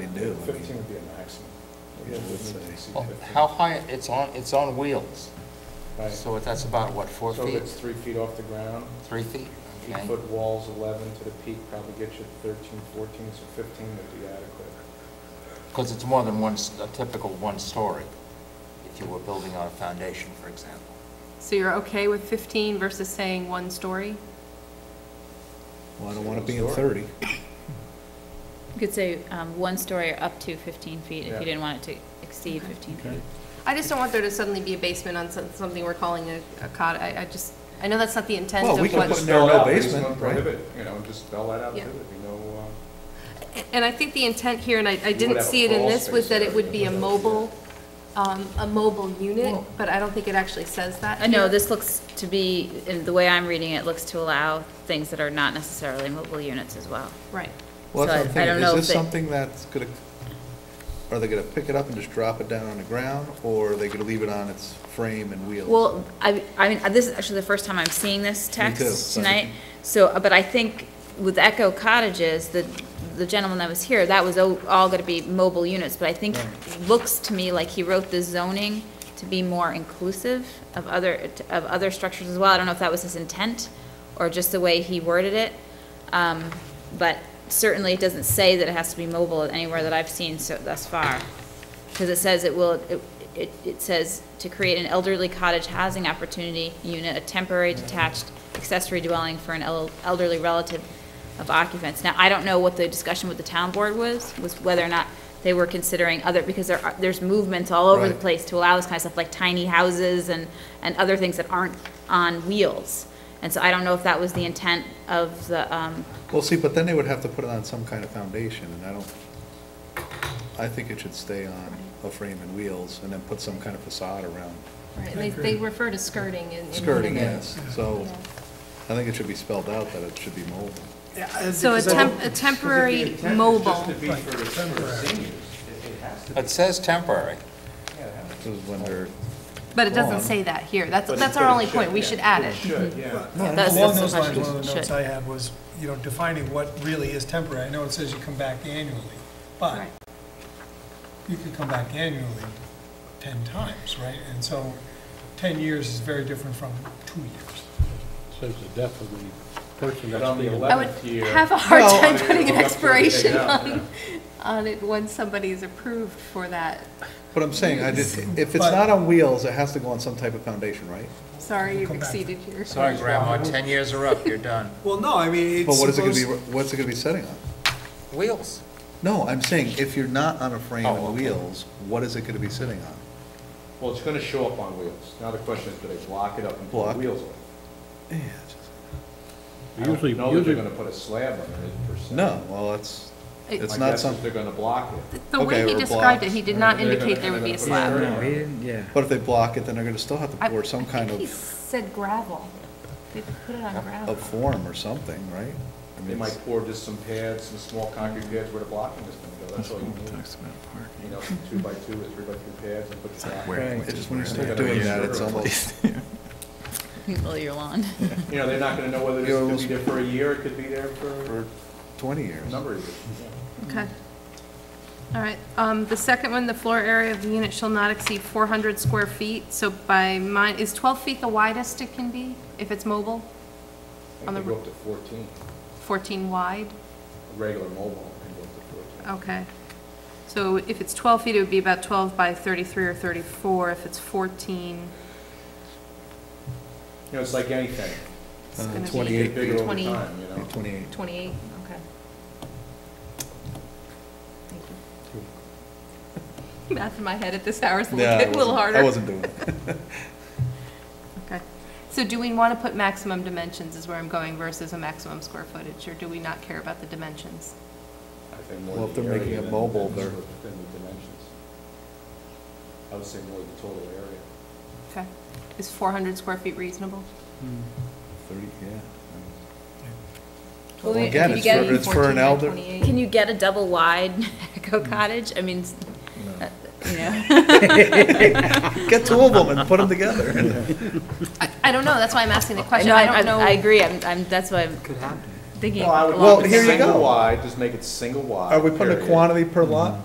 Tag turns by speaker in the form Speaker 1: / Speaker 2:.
Speaker 1: do.
Speaker 2: Fifteen would be a maximum.
Speaker 1: Yeah, I would say.
Speaker 3: Well, Oh, How high, it's on, it's on wheels, so that's about, what, four
Speaker 2: So if
Speaker 3: feet,
Speaker 2: it's three feet off the ground,
Speaker 3: three feet? Okay.
Speaker 2: eight-foot walls, 11 to the peak, probably get you 13, 14, so 15 would be adequate.
Speaker 3: Because it's more than one, s- a typical one-story, if you were building on a foundation, for example.
Speaker 4: So you're okay with 15 versus saying one story?
Speaker 1: Well, I don't want to be in thirty.
Speaker 5: You could say um, one story or up to 15 feet if
Speaker 2: Yeah.
Speaker 5: you didn't want it to exceed 15 feet.
Speaker 4: I just don't want there to suddenly be a basement on some- something we're calling a a cot. I I just, I know that's not the intent
Speaker 1: Well,
Speaker 4: of
Speaker 1: we can
Speaker 4: what...
Speaker 1: put
Speaker 2: Just
Speaker 1: narrow
Speaker 2: spell it out, there's
Speaker 1: basement,
Speaker 2: no
Speaker 1: right?
Speaker 2: prohibit, You know, just spell that out,
Speaker 4: Yeah.
Speaker 2: prohibit, you know, uh,
Speaker 4: And I think the intent here, and I, I
Speaker 2: would
Speaker 4: didn't
Speaker 2: have a
Speaker 4: see it in
Speaker 2: crawl
Speaker 4: this, was
Speaker 2: space
Speaker 4: that
Speaker 2: there.
Speaker 4: it would be a mobile, um, a mobile unit,
Speaker 5: Well-
Speaker 4: but I don't think it actually says that.
Speaker 5: Uh, No,
Speaker 4: here.
Speaker 5: this looks to be, in the way I'm reading it, looks to allow things that are not necessarily mobile units as well.
Speaker 4: Right.
Speaker 1: Well, that's
Speaker 5: So
Speaker 1: what I'm
Speaker 5: I- I don't
Speaker 1: thinking,
Speaker 5: know
Speaker 1: is
Speaker 5: if
Speaker 1: this
Speaker 5: they-
Speaker 1: something that's gonna, are they gonna pick it up and just drop it down on the ground, or are they gonna leave it on its frame and wheels?
Speaker 5: Well, I, I mean, this is actually the first time I'm seeing this
Speaker 1: too,
Speaker 5: text
Speaker 1: so-
Speaker 5: tonight. So, uh, but I think with Echo Cottages, the, the gentleman that was here, that was o- all gonna be mobile units. But I think,
Speaker 1: Right.
Speaker 5: looks to me like he wrote the zoning to be more inclusive of other, of other structures as well. I don't know if that was his intent or just the way he worded it. Um, but certainly it doesn't say that it has to be mobile anywhere that I've seen so, thus far. Because it says it will, it- it, it says to create an elderly cottage housing opportunity unit, a temporary detached accessory dwelling for an el- elderly relative of occupants. Now, I don't know what the discussion with the town board was, was whether or not they were considering other, because there are, there's movements all over the
Speaker 1: Right.
Speaker 5: place to allow this kind of stuff, like tiny houses and, and other things that aren't on wheels. And so I don't know if that was the intent of the, um,
Speaker 1: Well, see, but then they would have to put it on some kind of foundation, and I don't, I think it should stay on a frame and wheels, and then put some kind of facade around.
Speaker 4: Right, they, they refer to skirting in. in one of
Speaker 1: Skirting,
Speaker 4: the-
Speaker 1: yes, so
Speaker 4: Yeah.
Speaker 1: I think it should be spelled out that it should be mobile.
Speaker 4: So a temp, a temporary mobile,
Speaker 2: Just to be for the for seniors, it it has to be,
Speaker 3: It says temporary.
Speaker 2: yeah, it has to be.
Speaker 1: This is when they're,
Speaker 4: but it doesn't
Speaker 1: Well,
Speaker 4: say that here. That's,
Speaker 2: But it-
Speaker 4: that's our
Speaker 2: but it
Speaker 4: only
Speaker 2: should,
Speaker 4: point. We
Speaker 2: yeah.
Speaker 4: should add
Speaker 2: It
Speaker 4: it.
Speaker 2: should, yeah.
Speaker 6: No,
Speaker 5: That's-
Speaker 6: Along
Speaker 5: that's
Speaker 6: those
Speaker 5: the
Speaker 6: lines, one of the
Speaker 5: question.
Speaker 6: notes
Speaker 5: Should.
Speaker 6: I had was, you know, defining what really is temporary. I know it says you come back annually, but
Speaker 4: Right.
Speaker 6: you could come back annually 10 times, right? And so 10 years is very different from two years.
Speaker 7: Says the death of the person
Speaker 2: But
Speaker 7: that's
Speaker 2: on the
Speaker 7: being-
Speaker 4: I would
Speaker 2: 11th year.
Speaker 4: have a hard
Speaker 1: Well-
Speaker 4: time putting
Speaker 2: Look up
Speaker 4: an
Speaker 2: to it,
Speaker 4: expiration
Speaker 2: yeah, yeah.
Speaker 4: on, on it once somebody is approved for that.
Speaker 1: but I'm saying, I just, if it's
Speaker 6: But-
Speaker 1: not on wheels, it has to go on some type of foundation, right?
Speaker 4: Sorry, you've
Speaker 6: come back.
Speaker 4: exceeded your.
Speaker 3: Sorry, Grandma, 10 years are up, you're done.
Speaker 6: Well, no, I mean,
Speaker 1: But what is it gonna be, what's it gonna be setting on?
Speaker 3: Wheels.
Speaker 1: No, I'm saying, if you're not on a frame
Speaker 3: Oh,
Speaker 1: and
Speaker 3: okay.
Speaker 1: wheels, what is it gonna be sitting on?
Speaker 2: Well, it's going to show up on wheels. Now the question is, do they block it up and put
Speaker 1: Block.
Speaker 2: the wheels on it? I don't
Speaker 7: Usually,
Speaker 2: know that they're
Speaker 7: usually,
Speaker 2: going to put a slab on it per se.
Speaker 1: No, well, it's,
Speaker 4: It-
Speaker 1: it's
Speaker 2: My
Speaker 1: not
Speaker 2: guess is
Speaker 1: something,
Speaker 2: they're going to block it.
Speaker 4: The way
Speaker 1: Okay,
Speaker 4: he
Speaker 1: or
Speaker 4: described it,
Speaker 1: blocks.
Speaker 4: he did not
Speaker 2: They're gonna-
Speaker 4: indicate there would be a
Speaker 2: they're
Speaker 4: slab.
Speaker 2: gonna put a
Speaker 8: No,
Speaker 2: curb
Speaker 8: he
Speaker 2: on it.
Speaker 8: didn't, yeah.
Speaker 1: but if they block it, then they're gonna still have
Speaker 4: I-
Speaker 1: to pour some kind
Speaker 4: I think he
Speaker 1: of,
Speaker 4: said gravel. They put it on gravel.
Speaker 1: of form or something, right? I mean,
Speaker 2: They might
Speaker 1: it's-
Speaker 2: pour just some pads, some small concrete pads where the blocking is going to go. That's all you need.
Speaker 8: Talks about
Speaker 2: You
Speaker 8: parking.
Speaker 2: know, some two by two or three by three pads and put the back.
Speaker 8: Where- which
Speaker 1: It's
Speaker 8: is
Speaker 1: just when you
Speaker 8: where
Speaker 1: start
Speaker 8: they-
Speaker 1: doing
Speaker 2: Yeah.
Speaker 1: that, it's almost,
Speaker 5: mow your lawn.
Speaker 2: You know, they're not going to know whether this could be there for a year, it could be there for
Speaker 1: for twenty
Speaker 2: a
Speaker 1: years.
Speaker 2: number of years.
Speaker 4: Okay. All right, um, the second one, the floor area of the unit shall not exceed four hundred square feet, so by mine, is twelve feet the widest it can be, if it's mobile?
Speaker 2: I
Speaker 4: On the
Speaker 2: think they go up to fourteen,
Speaker 4: Fourteen wide,
Speaker 2: A regular mobile can go up to fourteen.
Speaker 4: okay. So if it's twelve feet, it would be about twelve by thirty-three or thirty-four, if it's fourteen,
Speaker 2: You know, it's like anything,
Speaker 4: it's
Speaker 1: Uh,
Speaker 4: gonna be
Speaker 1: 28
Speaker 2: get bigger over
Speaker 4: 20
Speaker 2: time, you know?
Speaker 1: Twenty-eight.
Speaker 4: Twenty-eight, okay. Thank you. Math in my head at this hour is a
Speaker 1: Nah, I
Speaker 4: little bit- little
Speaker 1: wasn't-
Speaker 4: harder.
Speaker 1: I wasn't doing it.
Speaker 4: Okay. So do we want to put maximum dimensions is where I'm going versus a maximum square footage, or do we not care about the dimensions?
Speaker 2: I think more
Speaker 1: Well,
Speaker 2: the
Speaker 1: if they're making
Speaker 2: area
Speaker 1: it
Speaker 2: than-
Speaker 1: mobile,
Speaker 2: than
Speaker 1: they're-
Speaker 2: the- Than the dimensions. I would say more the total area.
Speaker 4: Okay. Is 400 square feet reasonable?
Speaker 1: Thirty, yeah.
Speaker 5: Well,
Speaker 1: Well,
Speaker 5: we-
Speaker 1: Again,
Speaker 5: if you
Speaker 1: it's
Speaker 5: get-
Speaker 1: for, it's for an elder.
Speaker 5: Can you get a double wide Echo Cottage? I mean, s- uh, you know.
Speaker 1: Get two of them and put them together.
Speaker 4: I, I don't know, that's why I'm asking the question.
Speaker 5: No,
Speaker 4: I don't know.
Speaker 5: I agree, I'm, I'm, that's why I'm thinking.
Speaker 2: Well, I
Speaker 5: along
Speaker 2: would
Speaker 1: Well,
Speaker 5: the
Speaker 2: make it
Speaker 1: here you
Speaker 5: same-
Speaker 1: go.
Speaker 2: Single wide, just make it single wide.
Speaker 1: Are we putting a
Speaker 2: period.
Speaker 1: quantity per lot?